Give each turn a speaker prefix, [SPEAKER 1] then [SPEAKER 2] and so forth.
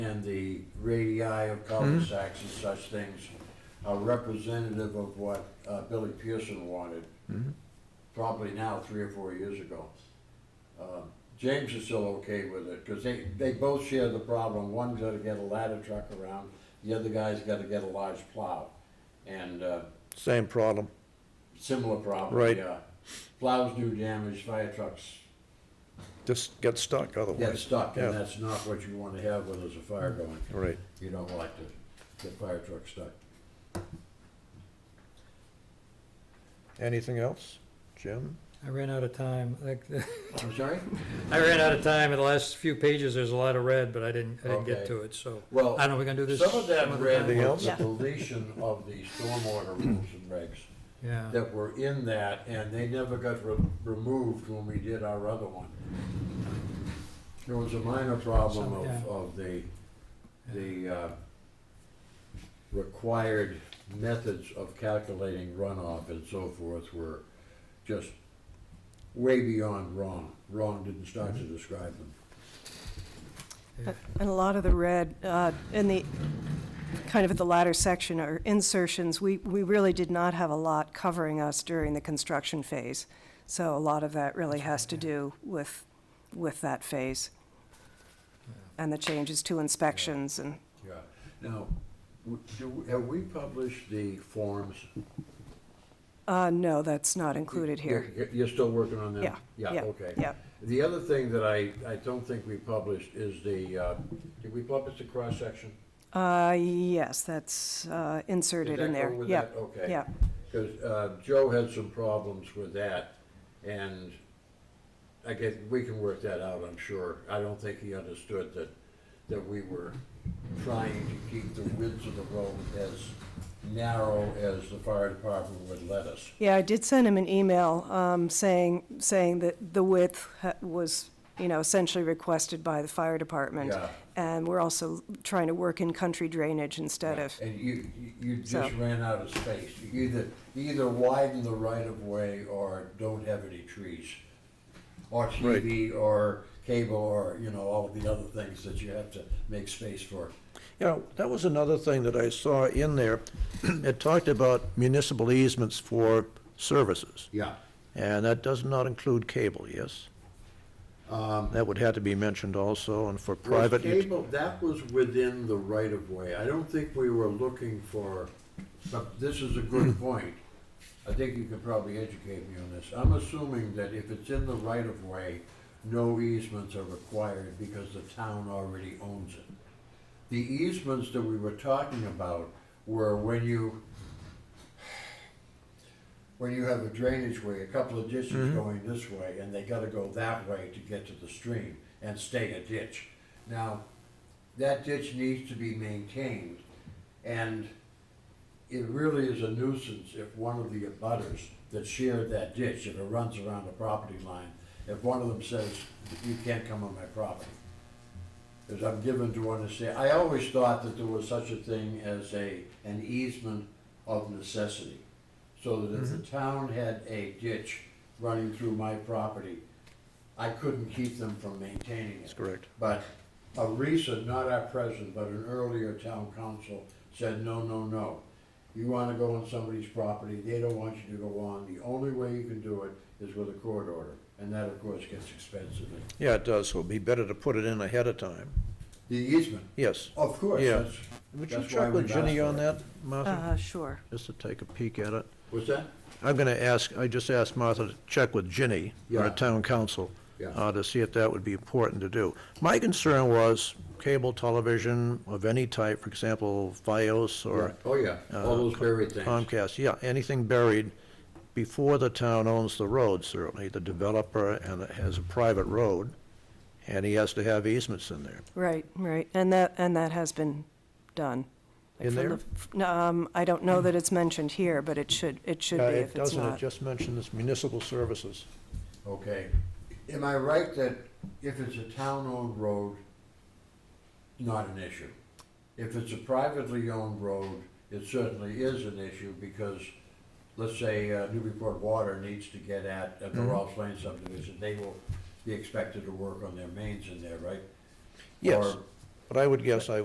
[SPEAKER 1] and the radii of
[SPEAKER 2] Hmm.
[SPEAKER 1] cul-de-sacs and such things are representative of what uh, Billy Pearson wanted,
[SPEAKER 2] Hmm.
[SPEAKER 1] probably now, three or four years ago. Uh, James is still okay with it, because they, they both share the problem. One's gotta get a ladder truck around, the other guy's gotta get a large plow. And uh,
[SPEAKER 2] Same problem.
[SPEAKER 1] similar problem.
[SPEAKER 2] Right.
[SPEAKER 1] yeah. Plows do damage, fire trucks
[SPEAKER 2] Just get stuck
[SPEAKER 1] get
[SPEAKER 2] otherwise.
[SPEAKER 1] stuck, and
[SPEAKER 2] Yeah.
[SPEAKER 1] that's not what you wanna have when there's a fire going.
[SPEAKER 2] Right.
[SPEAKER 1] You don't like to get fire trucks stuck.
[SPEAKER 2] Anything else? Jim?
[SPEAKER 3] I ran out of time. Like,
[SPEAKER 1] I'm sorry?
[SPEAKER 3] I ran out of time. In the last few pages, there's a lot of red, but I didn't, I didn't
[SPEAKER 1] Okay.
[SPEAKER 3] get to it, so.
[SPEAKER 1] Well,
[SPEAKER 3] I don't know, we gonna do this?
[SPEAKER 1] Some of that
[SPEAKER 3] other
[SPEAKER 1] read
[SPEAKER 3] time?
[SPEAKER 2] Anything
[SPEAKER 1] was
[SPEAKER 2] else?
[SPEAKER 1] the deletion of the stormwater rules and regs
[SPEAKER 3] Yeah,
[SPEAKER 1] that were in that, and they never got re- removed when we did our other one. There was a minor problem
[SPEAKER 3] Some-
[SPEAKER 1] of,
[SPEAKER 3] yeah.
[SPEAKER 1] of the, the, uh, required methods of calculating runoff and so forth were just way beyond wrong. Wrong didn't start
[SPEAKER 3] Mm-hmm.
[SPEAKER 1] to describe them.
[SPEAKER 4] And a lot of the red, uh, in the, kind of at the latter section are insertions. We, we really did not have a lot covering us during the construction phase. So a lot of that really has to do with, with that phase. And the changes to inspections and,
[SPEAKER 1] Yeah, now, w- do, have we published the forms?
[SPEAKER 4] uh, no, that's not included here.
[SPEAKER 1] You're- You're still working on them?
[SPEAKER 4] Yeah.
[SPEAKER 1] Yeah, okay.
[SPEAKER 4] Yeah,
[SPEAKER 1] The other thing that I, I don't think we published is the, uh, did we publish the cross-section?
[SPEAKER 4] uh, yes, that's, uh, inserted in there.
[SPEAKER 1] Is
[SPEAKER 4] Yeah,
[SPEAKER 1] that go with that? Okay.
[SPEAKER 4] yeah.
[SPEAKER 1] Because uh, Joe had some problems with that, and I guess we can work that out, I'm sure. I don't think he understood that, that we were trying to keep the width of the road as narrow as the fire department would let us.
[SPEAKER 4] Yeah, I did send him an email um, saying, saying that the width ha- was, you know, essentially requested by the fire department.
[SPEAKER 1] Yeah.
[SPEAKER 4] And we're also trying to work in country drainage instead of,
[SPEAKER 1] And you, you- you
[SPEAKER 4] So-
[SPEAKER 1] just ran out of space. You either, either widen the right of way or don't have any trees. Or TV or cable or, you know, all of the other things that you have to make space for.
[SPEAKER 2] You know, that was another thing that I saw in there. It talked about municipal easements for services,
[SPEAKER 1] Yeah.
[SPEAKER 2] and that does not include cable, yes?
[SPEAKER 1] Um.
[SPEAKER 2] That would have to be mentioned also, and for private. ut-
[SPEAKER 1] cable, that was within the right of way. I don't think we were looking for, but this is a good point. I think you could probably educate me on this. I'm assuming that if it's in the right of way, no easements are required because the town already owns it. The easements that we were talking about were when you, when you have a drainage way, a couple of
[SPEAKER 2] Mm-hmm.
[SPEAKER 1] ditches going this way, and they gotta go that way to get to the stream and stay a ditch. Now, that ditch needs to be maintained, and it really is a nuisance if one of the abutters that shared that ditch, if it runs around the property line, if one of them says, you can't come on my property. Because I'm given to understand, I always thought that there was such a thing as a, an easement of necessity. So that if the town had a ditch running through my property, I couldn't keep them from maintaining it.
[SPEAKER 2] That's correct.
[SPEAKER 1] But a recent, not our present, but an earlier town council said, no, no, no. You wanna go on somebody's property, they don't want you to go on, the only way you can do it is with a court order. And that, of course, gets expensive.
[SPEAKER 2] Yeah, it does, so it'd be better to put it in ahead of time.
[SPEAKER 1] The easement,
[SPEAKER 2] Yes.
[SPEAKER 1] of course,
[SPEAKER 2] Yeah.
[SPEAKER 1] that's,
[SPEAKER 2] Would you
[SPEAKER 1] That's why
[SPEAKER 2] check with
[SPEAKER 1] we've asked
[SPEAKER 2] Ginny
[SPEAKER 1] for
[SPEAKER 2] on
[SPEAKER 1] it.
[SPEAKER 2] that, Martha?
[SPEAKER 4] Uh, sure.
[SPEAKER 2] Just to take a peek at it.
[SPEAKER 1] what's that?
[SPEAKER 2] I'm going to ask, I just asked Martha to check with Ginny,
[SPEAKER 1] Yeah.
[SPEAKER 2] our town council,
[SPEAKER 1] Yeah.
[SPEAKER 2] uh, to see if that would be important to do. My concern was cable television of any type, for example, Vios or
[SPEAKER 1] Oh, yeah, all those buried things.
[SPEAKER 2] Comcast, yeah, anything buried before the town owns the road, certainly, the developer, and it has a private road, and he has to have easements in there.
[SPEAKER 4] Right, right. And that, and that has been done. Like
[SPEAKER 2] In
[SPEAKER 4] from
[SPEAKER 2] there?
[SPEAKER 4] the- no, Um, I don't know that it's mentioned here, but it should, it should be
[SPEAKER 2] Uh,
[SPEAKER 4] if it's
[SPEAKER 2] Doesn't it
[SPEAKER 4] not.
[SPEAKER 2] just mention this municipal services?
[SPEAKER 1] Okay, am I right that if it's a town-owned road, not an issue? If it's a privately owned road, it certainly is an issue because, let's say, uh, Newburyport Water needs to get at, at the Ross Lane subdivision, they will be expected to work on their mains in there, right?
[SPEAKER 2] Yes,
[SPEAKER 1] Or-
[SPEAKER 2] but I would guess I